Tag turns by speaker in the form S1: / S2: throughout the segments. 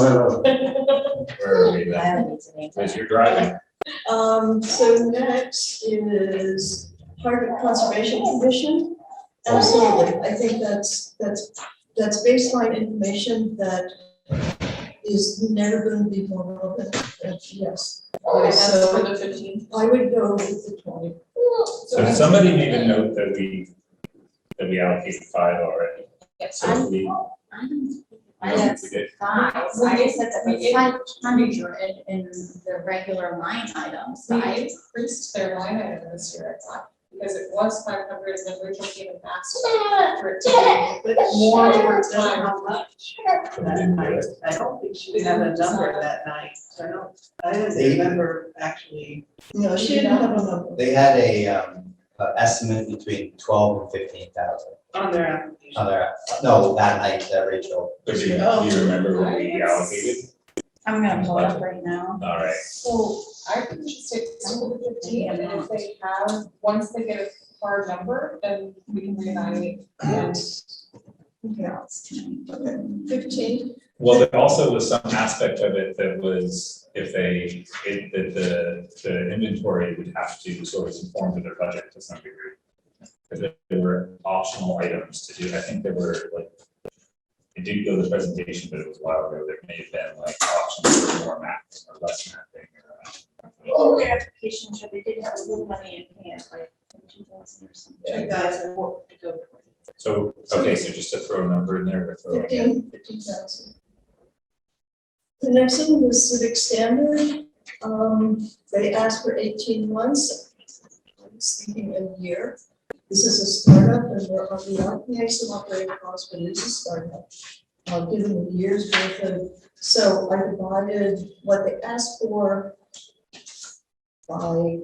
S1: Where
S2: Where are we then? As
S3: Um,
S2: you're driving,
S3: so next is Hardwick Conservation Commission. Absolutely, I think that's, that's, that's baseline information that is never gonna be more relevant, but yes.
S4: Okay, that's
S3: So-
S4: for the fifteenth.
S3: I would go with the twenty.
S2: so does somebody made a note that we, that we allocated five already, so we.
S5: I
S2: No,
S5: have
S2: we did.
S5: five, I just said that was five hundred in the regular line items,
S4: We
S5: right?
S4: increased their line item this year, I thought, because it was five hundred and then we took even faster. for it to
S3: But
S4: be More over
S3: doesn't
S4: time.
S3: have much.
S2: So we didn't do it.
S6: I don't think she had a number that night, so I don't, I don't remember actually.
S3: No, she didn't have a number.
S7: They had a, um, a estimate between twelve and fifteen thousand.
S6: On their application.
S7: Other, no, that night, that Rachel,
S2: But do you, do you remember what we allocated?
S5: I'm gonna pull it up right now.
S2: All right,
S4: So I think just take some of the fifteen and then if they have, once they get a hard number, then we can reevaluate. And
S3: Okay, okay, fifteen.
S2: well, there also was some aspect of it that was, if they, it, that the, the inventory would have to sort of conform to their budget to some degree. Because there- there were optional items to do, I think there were like, I did go to the presentation, but it was a while ago, there may have been like options for more mapping or less mapping or. uh,
S5: Oh, application should, they did have a little money in hand, like two thousand or something.
S6: Two thousand.
S5: To go toward.
S2: So, okay, so just to throw a number in there, we're throwing in
S3: Fifteen, fifteen thousand. The next one was civic standard, um, they asked for eighteen months. I was thinking a year, this is a startup and we're on the RPA, some operating costs, but it is a startup. Uh, given the years worth of, so I divided what they asked for by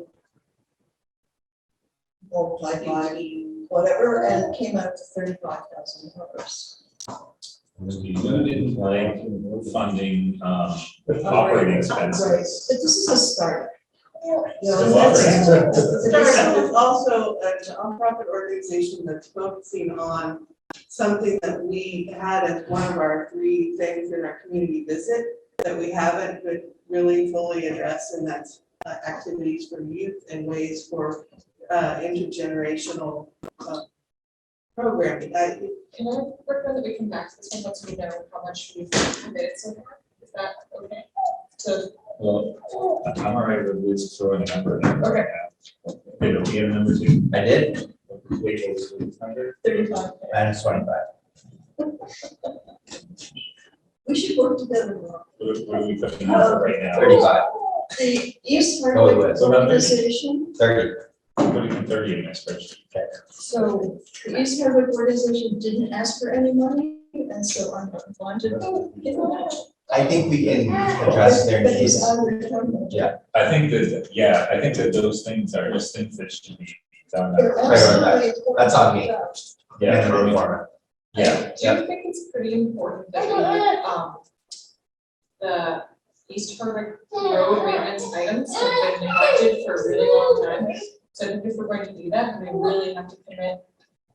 S3: multiplied by whatever, and it came out to thirty-five thousand dollars.
S2: was the limited like funding, um, operating
S3: Right,
S2: expenses.
S3: but this is a start. You
S2: Still
S3: know, that's-
S2: operating.
S6: Startup is also a nonprofit organization that's focusing on something that we had as one of our three things in our community visit that we haven't but really fully addressed, and that's uh, activities for youth and ways for uh, intergenerational uh, programming. I,
S4: can I recommend that we come back to this one once we know how much we've committed so far? Is that okay? So
S2: Well, I'm all right with Liz throwing a number in there.
S4: Okay.
S2: Wait, do we have a number two?
S7: I did,
S2: Wait, what was the number?
S3: Thirty-five.
S7: minus twenty-five.
S3: We should work together more.
S2: What are- what are we putting in for right now?
S7: 35, 30,
S3: The East
S7: Oh, wait,
S3: Hardwick
S2: so about thirty.
S3: organization,
S2: Putting in thirty in this spreadsheet.
S3: so the East Hardwick organization didn't ask for any money, and so I'm not bonded.
S7: I think we can address their
S3: But it's
S7: needs.
S3: out of the town.
S2: I think that, yeah, I think that those things are just things that should be done.
S3: They're
S7: right, right.
S3: absolutely-
S7: That's on me.
S2: Yeah.
S7: Minimum requirement.
S2: Yeah,
S4: I do think it's pretty important that we, um, the East Hardwick road maintenance items have been neglected for a really long time. So I think if we're going to do that, we really have to commit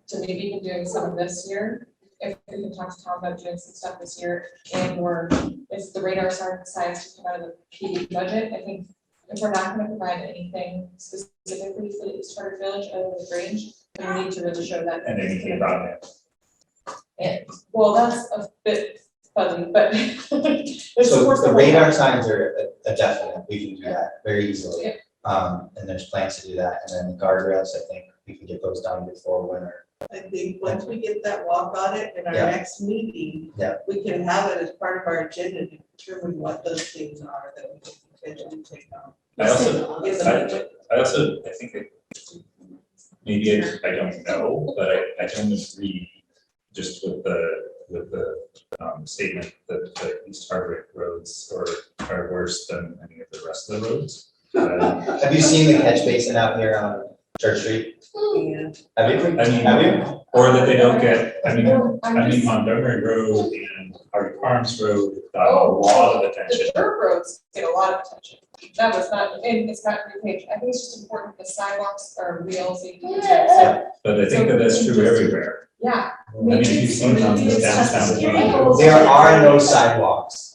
S4: to maybe even doing some of this year. If we can talk to Tom about doing some stuff this year and or if the radar star decides to come out of the PD budget, I think if we're not gonna provide anything specifically for the East Hardwick Village other than the Grange, we need to really show that.
S2: and anything about that.
S4: Well, that's a bit fuzzy, but there's of
S7: So
S4: course
S7: the
S4: the
S7: radar signs are a a definite, we can do that very
S4: Yeah.
S7: easily. Um, and there's plans to do that, and then the guardrails, I think we can get those done before winter.
S6: I think once we get that walk audit in our
S7: Yeah.
S6: next meeting.
S7: Yeah.
S6: We can have it as part of our agenda to determine what those things are that we can potentially take on.
S2: I also,
S6: Yes,
S2: I, I also, I think that maybe I, I don't know, but I, I don't agree just with the, with the, um, statement that the East Hardwick roads are, are worse than any of the rest of the roads. Uh,
S7: Have you seen the catch basin out here on Church Street?
S6: And
S7: Have you?
S2: I mean-
S7: Have you?
S2: Or that they don't get, I mean,
S4: No,
S2: I
S4: I'm
S2: mean
S4: just,
S2: Montgomery Road and Hardwick Farms Road got a lot of attention.
S4: the dirt roads get a lot of attention. That was not, and it's not repaid. I think it's just important the sidewalks are real safety. concerns.
S2: But I think that that's true everywhere.
S4: Yeah.
S2: I mean, if you've seen it on this downtown.
S7: There are no sidewalks.